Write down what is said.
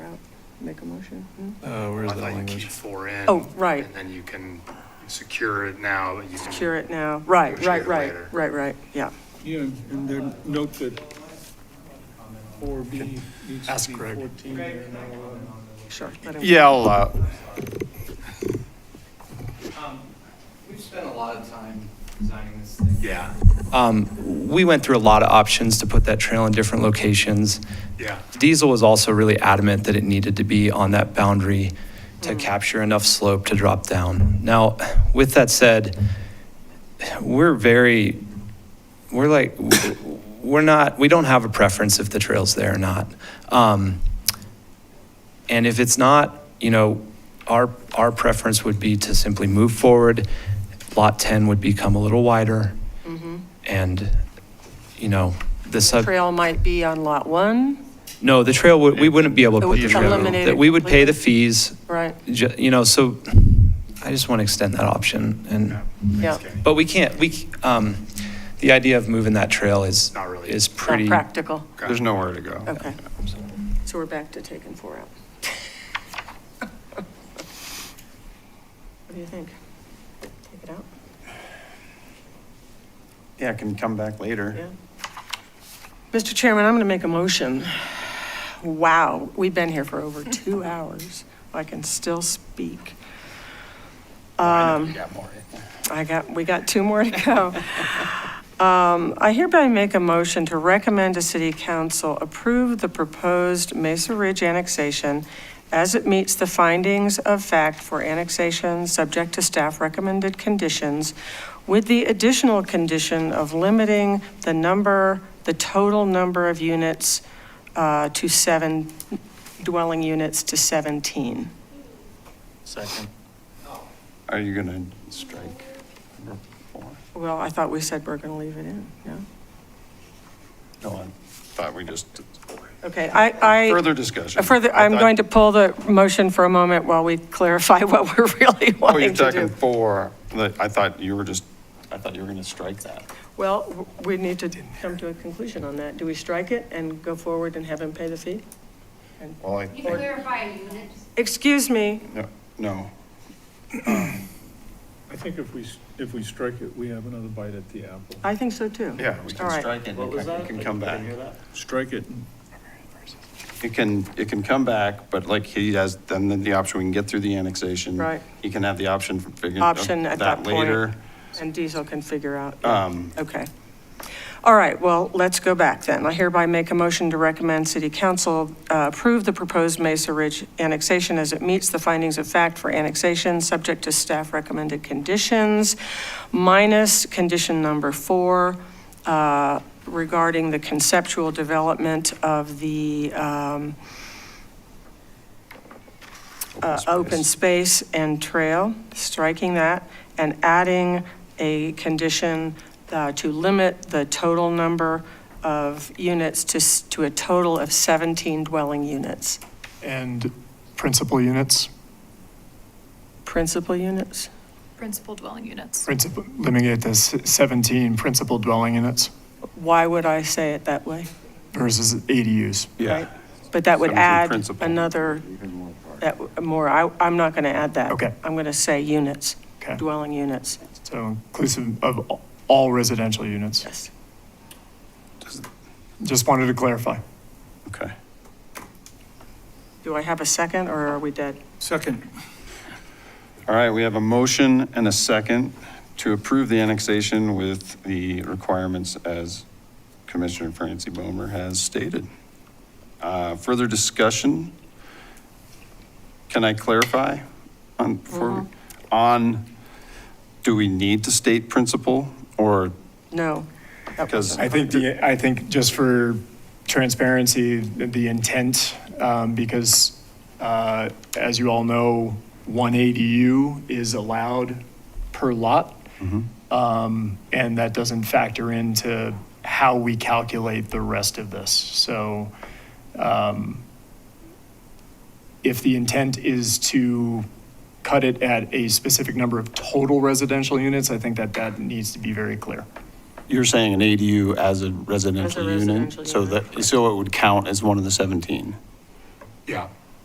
make a motion? Hmm? No? Uh, where's I the thought you keep language? four in. Oh, right. And then you can secure it now, but you can. Cure it now, right, right, Negotiate right, later. right, right, yeah. Yeah, and then note that four B needs Ask to be Greg. fourteen there, not eleven. Sure. let him- Yeah, I'll, uh, We've spent a lot of time designing this thing. Yeah, Um, we went through a lot of options to put that trail in different locations. yeah. Diesel was also really adamant that it needed to be on that boundary to capture enough slope to drop down. Now, with that said, we're very, we're like, we're not, we don't have a preference if the trail's there or not. Um, and if it's not, you know, our, our preference would be to simply move forward. Lot 10 would become a little wider. And, you know, the sub. Mm-hmm. Trail might be on lot one, No, the trail, would- we wouldn't be able to It would put the just trail. eliminate That it we would pay the completely? fees, right? ju- you know, so I just want to extend that option. And, Yeah. Yeah. Thanks, Kenny. but we can't, we, c- um, the idea of moving that trail is, Not really. is Not pretty. practical, there's nowhere to go. okay. So we're back to taking four out. What do you think? Take it out? Yeah, it can come back later. Yeah. Mr. Chairman, I'm going to make a motion. Wow, we've been here for over two hours. I can still speak. Um, We got more. I got, we got two more to go. Um, I hereby make a motion to recommend to City Council approve the proposed Mesa Ridge annexation as it meets the findings of fact for annexation, subject to staff recommended conditions, with the additional condition of limiting the number, the total number of units uh, to seven, dwelling units to 17. Second. Are you gonna strike number four? Well, I thought we said we're going to leave it in, no? No, I thought we just, did four. Okay, I, I. further discussion. Uh, Further, I'm going to pull the motion for a moment while we clarify what we're really Oh, you're wanting to talking do. four, Like, I thought you were just, I thought you were gonna strike that. Well, w- we need to come to a conclusion on that. Do we strike it and go forward and have him pay the fee? Well, I, You clarify a unit, Excuse me, no, no, I think if we, s- if we strike it, we have another bite at the apple. I think so too. yeah, we All can right. strike it, and it can- it can come back. Strike it and It can, it can come back, but like he has, then the option, we can get through the annexation. Right. He can have the option for figuring out Option at that point. later. And Diesel can figure out. yeah. Um, Okay. All right, well, let's go back then. I hereby make a motion to recommend City Council uh, approve the proposed Mesa Ridge annexation as it meets the findings of fact for annexation, subject to staff recommended conditions, minus condition number four uh, regarding the conceptual development of the um, uh, open space and trail, striking that, and adding a condition uh, to limit the total number of units to, s- to a total of 17 dwelling units. And principal units, Principal units? Principal dwelling units. principal, limiting it to s- 17 principal dwelling units Why would I say it that way? versus ADUs. right? But that would 17 add principal. another, that, w- more, I, I'm not going to add that. Okay. I'm going to say units, Okay. dwelling units, So inclusive of a- all residential units. yes. Just wanted to clarify. Okay. Do I have a second, or are we dead? second. All right, we have a motion and a second to approve the annexation with the requirements as Commissioner Francie Bomer has stated. Uh, Further discussion? Can I clarify on, before, on, do we need to state principle or, No. that because, I think the, I think just for transparency, the intent, um, because, uh, as you all know, one ADU is allowed per lot. Um, and that doesn't factor into how we calculate the rest of this. So, um, if the intent is to cut it at a specific number of total residential units, I think that that needs to be very clear. you're saying an ADU as a residential unit? residential So unit. that, so it would count as one of the 17? Yeah.